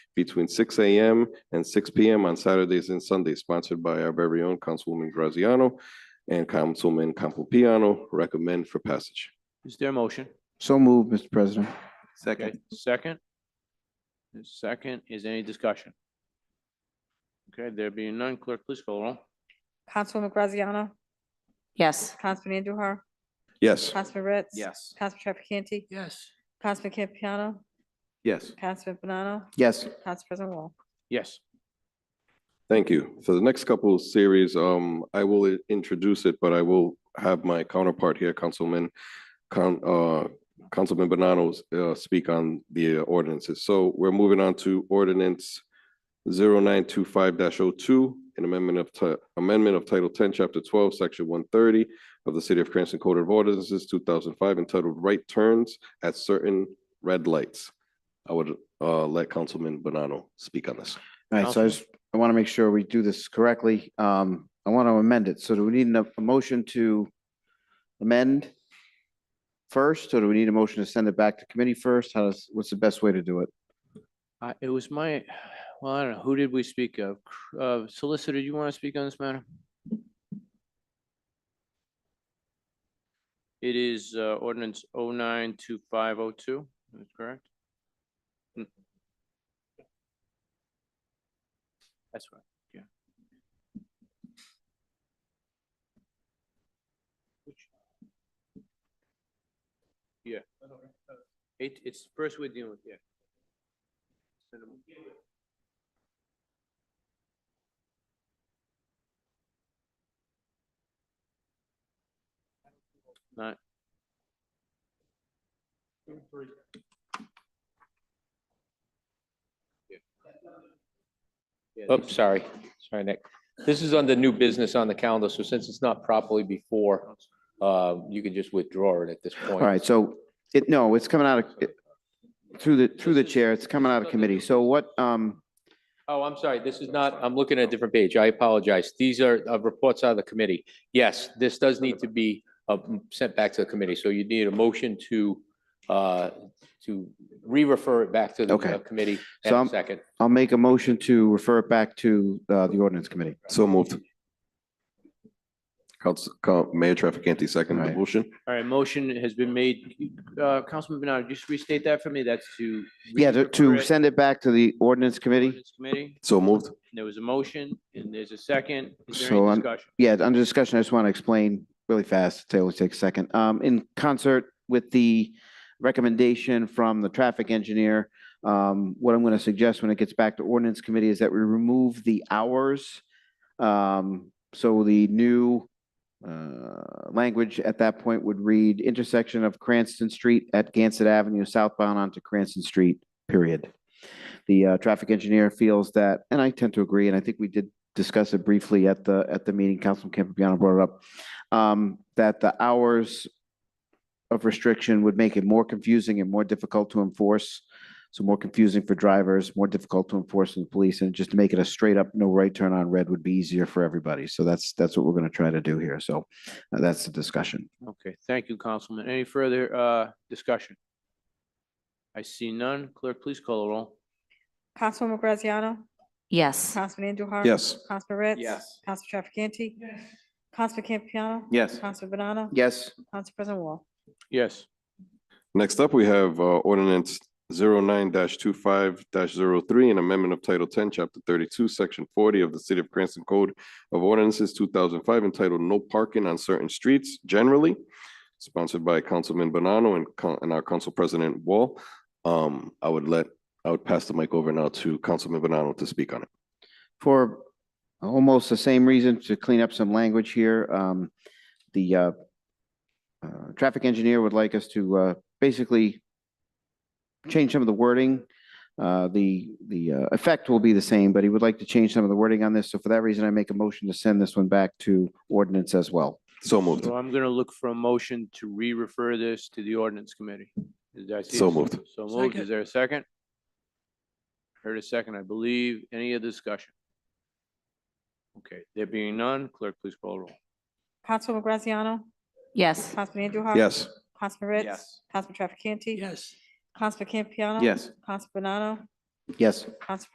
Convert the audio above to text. between six AM and six PM on Saturdays and Sundays, sponsored by our very own Councilwoman Graziano and Councilman Campopiano, recommend for passage. Is there a motion? So moved, Mr. President. Second. Second? The Second, is any discussion? Okay, there being none, clerk, please call the roll. Councilwoman Graziano? yes, Councilman Andujar? Yes. Councilman Ritz? Yes. Councilman Trafficante? Yes. Councilman Campiano? Yes. Councilman Banano? Yes, Council President Wall? Yes. Thank you. For the next couple of series, um, I will i- introduce it, but I will have my counterpart here, Councilman, Con, uh, Councilman Banano, uh, speak on the uh, ordinances. So we're moving on to ordinance zero nine two five 2 an amendment of ti- amendment of Title ten, Chapter twelve, Section one thirty of the City of Cranston Code of Ordinances, two thousand five, entitled Right Turns at Certain Red Lights. I would, uh, let Councilman Banano speak on this. all right, so I just, I want to make sure we do this correctly. Um, I want to amend it. So do we need an- a motion to amend first, or do we need a motion to send it back to committee first? How does, what's the best way to do it? Uh, it was my, well, I don't know, who did we speak of? Cr- Uh, solicitor, you want to speak on this matter? It is, uh, ordinance oh nine two five oh two, is that correct? Mm. That's right, yeah. Yeah. It, it's first we're dealing with, yeah. Cinema. Not. Yeah, Oh, sorry, sorry, Nick. This is under new business on the calendar, so since it's not properly before, uh, you can just withdraw it at this point. All right, so it, no, it's coming out of, it- through the, through the This is- chair, it's coming out of committee. So what, um, Oh, I'm sorry, this is not, I'm looking at a different page. I apologize. These are uh, reports out of the committee. Yes, this does need to be uh, um, sent back to the committee, so you need a motion to, uh, to re-refer it back to the Okay. uh, committee So and I'm- a second. I'll make a motion to refer it back to, uh, the ordinance committee. So moved. Council, Coun- Mayor Trafficante, second the Aye. motion. All right, motion has been made. Uh, Councilman Bernard, just restate that for me. That's to. Yeah, to, to refer it send it back to the ordinance committee. ordinance Committee. So moved. There was a motion and there's a second. Is there So any I'm- discussion? Yeah, under discussion, I just want to explain really fast. It only takes a second. Um, in concert with the recommendation from the traffic engineer, um, what I'm going to suggest when it gets back to ordinance committee is that we remove the hours. Um, so the new, uh, language at that point would read intersection of Cranston Street at Gansett Avenue southbound onto Cranston Street, period. The, uh, traffic engineer feels that, and I tend to agree, and I think we did discuss it briefly at the, at the meeting, Councilman Campagnano brought it up, um, that the hours of restriction would make it more confusing and more difficult to enforce. So more confusing for drivers, more difficult to enforce in the police, and just to make it a straight up no right turn on red would be easier for everybody. So that's, that's what we're gonna try to do here. So uh, that's the discussion. Okay, thank you, Councilman. Any further, uh, discussion? I see none. Clerk, please call the roll. Councilwoman Graziano? yes, Councilman Andujar? Yes. Councilman Ritz? Yes. Councilman Trafficante? Yes. Councilman Campiano? Yes. Councilman Banano? Yes, Council President Wall? Yes. Next up, we have uh, ordinance zero nine dash two five dash zero three, an amendment of Title ten, Chapter thirty-two, Section forty of the City of Cranston Code of Ordinances two thousand five entitled No Parking on Certain Streets Generally, sponsored by Councilman Bonanno and Coun- and our Council President Wall. Um, I would let, I would pass the mic over now to Councilman Bonanno to speak on it. for almost the same reason to clean up some language here. Um, the, uh, uh, traffic engineer would like us to, uh, basically change some of the wording. Uh, the, the, uh, effect will be the same, but he would like to change some of the wording on this. So for that reason, I make a motion to send this one back to ordinance as well. So moved. So I'm gonna look for a motion to re-refer this to the ordinance committee. Did I see So a s- moved. So moved. Is there a second? Heard a second, I believe. Any other discussion? Okay, there being none, clerk, please call roll. Councilwoman Graziano? yes, Councilman Andujar? Yes. Councilman Ritz? Councilman Trafficante? Yes. Councilman Campiano? Yes. Councilman Banano? Yes. Council